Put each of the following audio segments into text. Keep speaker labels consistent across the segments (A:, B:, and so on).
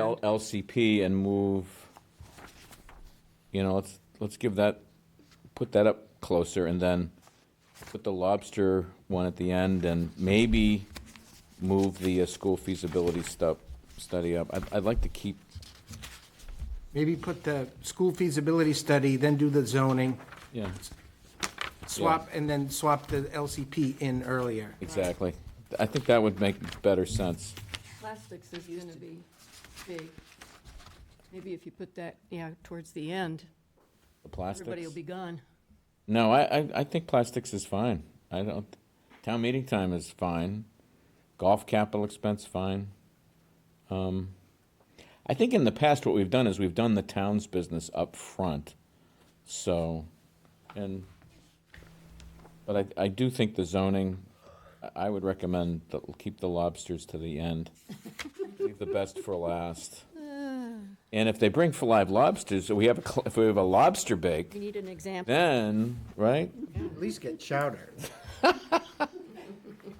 A: L- LCP and move, you know, let's, let's give that, put that up closer and then put the lobster one at the end and maybe move the uh, school feasibility stuff, study up. I'd, I'd like to keep,
B: Maybe put the school feasibility study, then do the zoning,
A: yeah,
B: swap, and then swap the LCP in earlier.
A: exactly. I think that would make better sense.
C: Plastics is gonna be big. Maybe if you put that, yeah, towards the end,
A: The plastics.
C: everybody will be gone.
A: No, I, I, I think plastics is fine. I don't, town meeting time is fine. Golf capital expense, fine. Um, I think in the past, what we've done is we've done the town's business up front. So, and, but I, I do think the zoning, I- I would recommend that we keep the lobsters to the end. Leave the best for last. And if they bring for live lobsters, so we have, a cl- if we have a lobster bake,
C: We need an example.
A: then, right?
B: At least get chowder.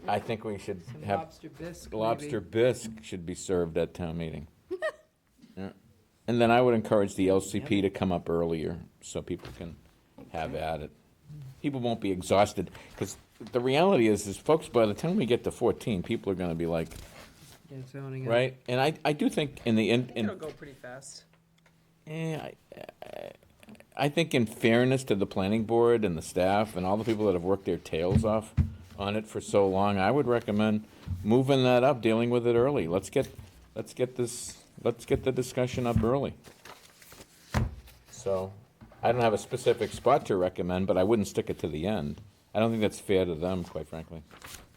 A: I think we should have
D: Lobster bisque, maybe.
A: lobster bisque should be served at town meeting. Yeah. And then I would encourage the LCP to come up earlier so people can have at it. People won't be exhausted, because the reality is, is folks, by the time we get to fourteen, people are gonna be like,
D: Yeah, zoning. it.
A: right? And I, I do think in the, in, in.
D: It'll go pretty fast.
A: Eh, I, I- I think in fairness to the planning board and the staff and all the people that have worked their tails off on it for so long, I would recommend moving that up, dealing with it early. Let's get, let's get this, let's get the discussion up early. So, I don't have a specific spot to recommend, but I wouldn't stick it to the end. I don't think that's fair to them, quite frankly.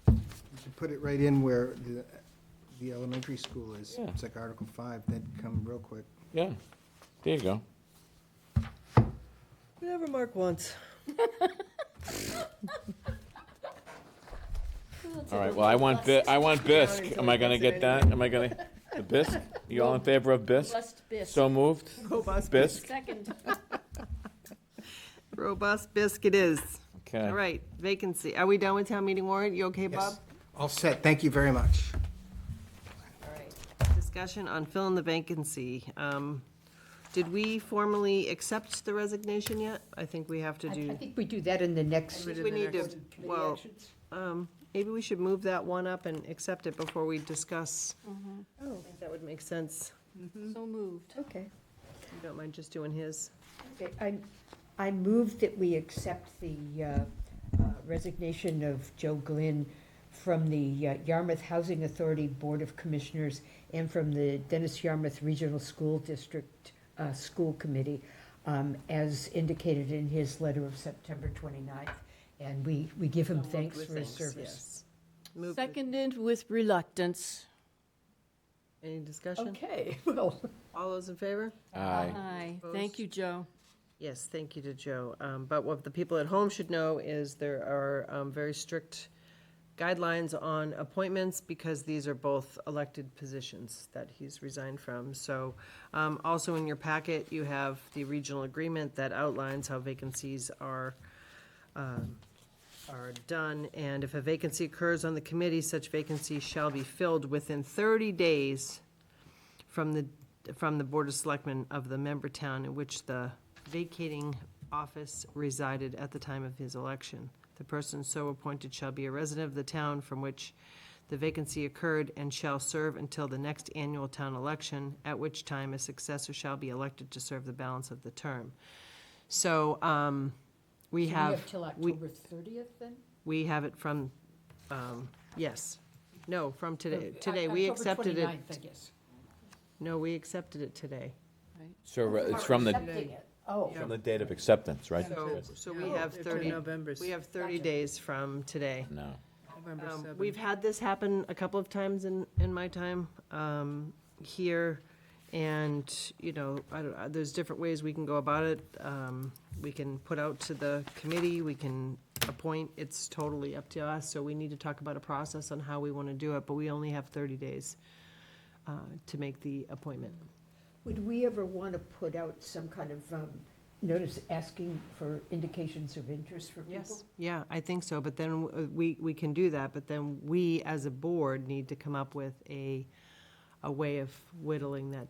B: You should Put it right in where the, the elementary school is.
A: Yeah.
B: It's like Article Five, that'd come real quick.
A: Yeah, there you go.
D: Whatever Mark wants.
A: All right, well, I want bi, I want bisque. Am I gonna get that? Am I gonna, the bisque? You all in favor of bisque?
C: Lust bis.
A: So moved.
D: Robust
A: Bisque.
C: Second,
D: Robust bisque it is.
A: Okay.
D: All right, vacancy. Are we done with town meeting warrant? You okay, Bob?
B: Yes, all set, thank you very much.
D: All right. Discussion on filling the vacancy. Um, Did we formally accept the resignation yet? I think we have to
E: I I
D: do,
E: think we do that in the next.
D: we need to, well, um, maybe we should move that one up and accept it before we discuss. I think That would make sense.
C: so moved.
E: Oh, Okay,
D: You don't mind just doing his?
E: okay. I, I move that we accept the uh, uh, resignation of Joe Glynn from the uh, Yarmouth Housing Authority Board of Commissioners and from the Dennis Yarmouth Regional School District uh, School Committee, um, as indicated in his letter of September 29th. And we, we give him thanks for his service.
D: Move, with-
C: Seconded with reluctance.
D: any discussion?
E: Okay, well.
D: All those in favor?
A: Aye.
C: Aye, thank you, Joe.
D: Yes, thank you to Joe. Um, But what the people at home should know is there are um, very strict guidelines on appointments because these are both elected positions that he's resigned from. So um, also in your packet, you have the regional agreement that outlines how vacancies are um, are done, and if a vacancy occurs on the committee, such vacancy shall be filled within 30 days from the, from the Board of Selectmen of the member town in which the vacating office resided at the time of his election. The person so appointed shall be a resident of the town from which the vacancy occurred and shall serve until the next annual town election, at which time a successor shall be elected to serve the balance of the term. So, um, we
E: We
D: have.
E: have till October 30th then?
D: We have it from, um, yes, no, from today,
E: Or
D: today,
E: Oc-
D: we
E: October
D: accepted it,
E: 29th, I guess.
D: no, we accepted it today.
A: So re- it's from the,
E: Accepting it. Oh.
A: from the date of acceptance, right?
D: So, so we have thirty, we have thirty days from today.
A: No.
D: Um, We've had this happen a couple of times in, in my time um, here, and, you know, I don't, uh, there's different ways we can go about it. Um, We can put out to the committee, we can appoint, it's totally up to us, so we need to talk about a process on how we want to do it, but we only have 30 days uh, to make the appointment.
E: Would we ever want to put out some kind of um, notice asking for indications of interest for people?
D: Yeah, I think so, but then uh, we, we can do that, but then we, as a board, need to come up with a, a way of whittling that